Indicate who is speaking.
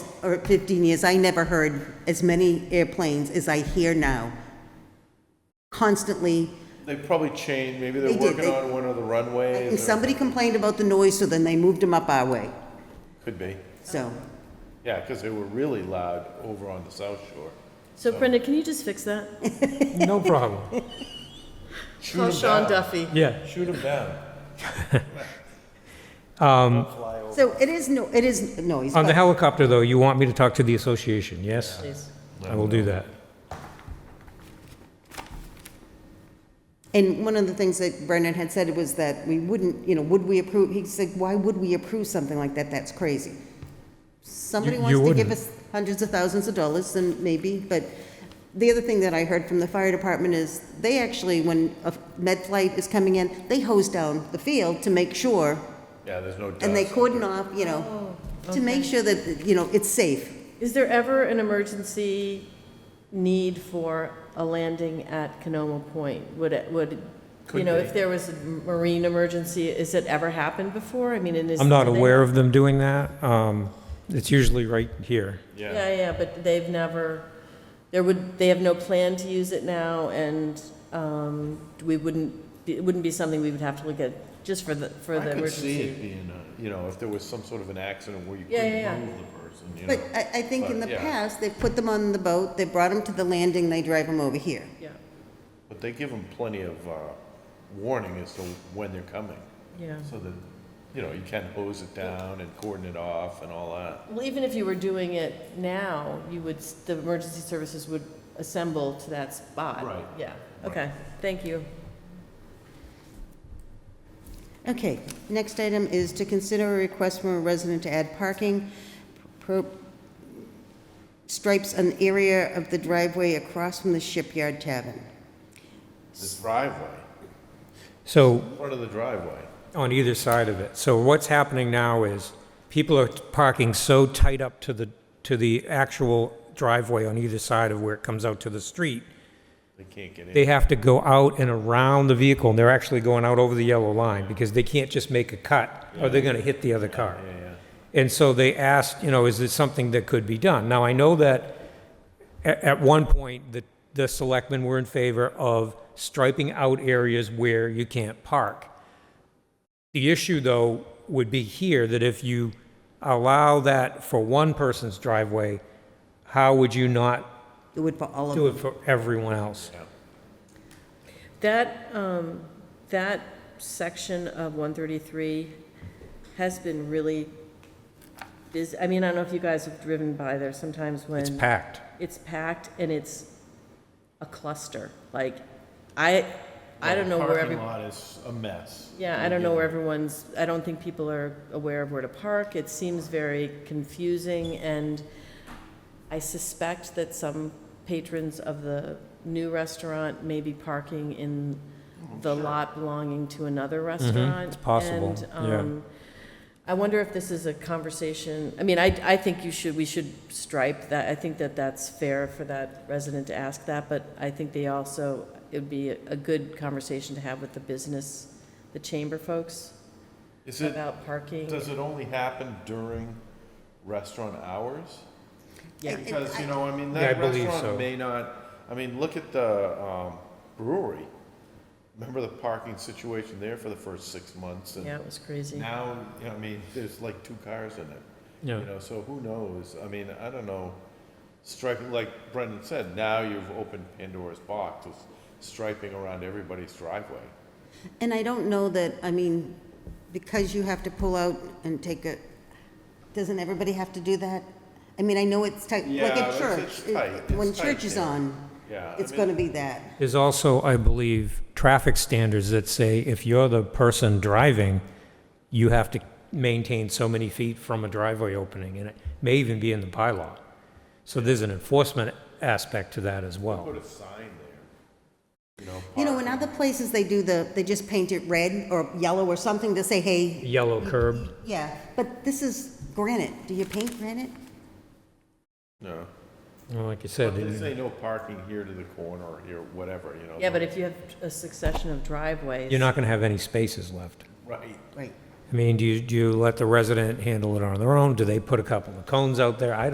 Speaker 1: or 15 years, I never heard as many airplanes as I hear now. Constantly,
Speaker 2: They probably changed, maybe
Speaker 1: They
Speaker 2: they're
Speaker 1: did,
Speaker 2: working
Speaker 1: they-
Speaker 2: on one of the
Speaker 1: I
Speaker 2: runways.
Speaker 1: think
Speaker 2: or-
Speaker 1: somebody complained about the noise, so then they moved them up our way,
Speaker 2: Could be,
Speaker 1: so.
Speaker 2: yeah, because they were really loud over on the South Shore.
Speaker 3: So Brenda, can you just fix that?
Speaker 4: No problem.
Speaker 2: Shoot
Speaker 3: Call
Speaker 2: 'em
Speaker 3: Sean
Speaker 2: down.
Speaker 3: Duffy.
Speaker 4: Yeah.
Speaker 2: Shoot them down.
Speaker 1: So it is, no, it is noise,
Speaker 4: On the
Speaker 1: but
Speaker 4: helicopter, though, you want me to talk to the association, yes?
Speaker 3: Please.
Speaker 4: I will do that.
Speaker 1: And one of the things that Brendan had said was that we wouldn't, you know, would we approve, he said, why would we approve something like that? That's crazy. Somebody
Speaker 4: You-
Speaker 1: wants
Speaker 4: you
Speaker 1: to give
Speaker 4: wouldn't.
Speaker 1: us hundreds of thousands of dollars, then maybe, but the other thing that I heard from the fire department is, they actually, when a med flight is coming in, they hose down the field to make sure,
Speaker 2: Yeah, there's no dust.
Speaker 1: and they cordon off, you know, to make sure that, you know, it's safe.
Speaker 3: Is there ever an emergency need for a landing at Canoma Point? Would it, would, you
Speaker 2: Could
Speaker 3: know,
Speaker 2: be.
Speaker 3: if there was a marine emergency, has it ever happened before? I mean, and is.
Speaker 4: I'm not
Speaker 3: do they-
Speaker 4: aware of them doing that. Um, It's usually right here.
Speaker 2: Yeah,
Speaker 3: Yeah, yeah, but they've never, there would, they have no plan to use it now, and um, we wouldn't, be- it wouldn't be something we would have to look at just for the, for
Speaker 2: I
Speaker 3: the
Speaker 2: could see it
Speaker 3: emergency.
Speaker 2: being, a- you know, if there was some sort of an accident where you
Speaker 3: Yeah, yeah,
Speaker 2: couldn't
Speaker 3: yeah.
Speaker 2: move the person, you know.
Speaker 1: But I, I think in the
Speaker 2: But, yeah.
Speaker 1: past, they've put them on the boat, they brought them to the landing, they drive them over here.
Speaker 3: Yeah,
Speaker 2: But they give them plenty of uh, warning as to when they're coming,
Speaker 3: yeah.
Speaker 2: so that, you know, you can hose it down and cordon it off and all that.
Speaker 3: Well, even if you were doing it now, you would, the emergency services would assemble to that spot.
Speaker 2: Right.
Speaker 3: Yeah,
Speaker 2: Right.
Speaker 3: okay, thank you.
Speaker 1: Okay, next item is to consider a request from a resident to add parking pro- stripes an area of the driveway across from the Shipyard Tavern.
Speaker 2: The driveway,
Speaker 4: So
Speaker 2: front of the driveway.
Speaker 4: on either side of it. So what's happening now is people are parking so tight up to the, to the actual driveway on either side of where it comes out to the street.
Speaker 2: They can't get in.
Speaker 4: They have to go out and around the vehicle, and they're actually going out over the yellow line because they can't just make a cut or they're going to hit the other car.
Speaker 2: yeah.
Speaker 4: And so they asked, you know, is this something that could be done? Now, I know that at, at one point, the, the selectmen were in favor of striping out areas where you can't park. The issue, though, would be here, that if you allow that for one person's driveway, how would you not
Speaker 1: Do it for all of
Speaker 4: do
Speaker 1: them.
Speaker 4: it for everyone else?
Speaker 3: That, um, that section of one thirty-three has been really busy. I mean, I don't know if you guys have driven by there sometimes when.
Speaker 4: It's packed.
Speaker 3: It's packed and it's a cluster. Like, I, I don't know where every.
Speaker 2: Parking lot is a mess.
Speaker 3: Yeah, I don't know where everyone's, I don't think people are aware of where to park. It seems very confusing, and I suspect that some patrons of the new restaurant may be parking in
Speaker 2: Oh,
Speaker 3: the lot belonging to another restaurant.
Speaker 4: Mm-hmm. it's possible,
Speaker 3: And,
Speaker 4: yeah.
Speaker 3: um, I wonder if this is a conversation, I mean, I, I think you should, we should stripe that, I think that that's fair for that resident to ask that, but I think they also, it would be a a good conversation to have with the business, the chamber folks
Speaker 2: Is it,
Speaker 3: about parking.
Speaker 2: does it only happen during restaurant hours?
Speaker 3: Yeah.
Speaker 2: Because, you know, I mean,
Speaker 4: Yeah, I
Speaker 2: that
Speaker 4: believe
Speaker 2: restaurant
Speaker 4: so.
Speaker 2: may not, I mean, look at the um, brewery. Remember the parking situation there for the first six months? and
Speaker 3: Yeah, it was crazy.
Speaker 2: Now, you know, I mean, there's like two cars in it.
Speaker 4: Yeah.
Speaker 2: You know, so who knows? I mean, I don't know. Striping, like Brendan said, now you've opened Pandora's box with striping around everybody's driveway.
Speaker 1: And I don't know that, I mean, because you have to pull out and take a, doesn't everybody have to do that? I mean, I know it's tight, like
Speaker 2: Yeah,
Speaker 1: at
Speaker 2: it's-
Speaker 1: church.
Speaker 2: it's tight,
Speaker 1: it-
Speaker 2: it's
Speaker 1: When
Speaker 2: tight
Speaker 1: church is
Speaker 2: there.
Speaker 1: on,
Speaker 2: Yeah. I
Speaker 1: it's
Speaker 2: mean,
Speaker 1: gonna be that.
Speaker 4: There's also, I believe, traffic standards that say if you're the person driving, you have to maintain so many feet from a driveway opening, and it may even be in the bylaw. So there's an enforcement aspect to that as well.
Speaker 2: Put a sign there.
Speaker 1: You know, in other places, they do the, they just paint it red or yellow or something to say, hey,
Speaker 4: Yellow curb,
Speaker 1: Yeah, but this is granite. Do you paint granite?
Speaker 2: No.
Speaker 4: well, like you
Speaker 2: They
Speaker 4: said,
Speaker 2: say no parking here to the corner or here, whatever, you know.
Speaker 3: Yeah, but if you have a succession of driveways.
Speaker 4: you're not going to have any spaces left.
Speaker 2: Right.
Speaker 1: Right.
Speaker 4: I mean, do you, do you let the resident handle it on their own? Do they put a couple of cones out there? I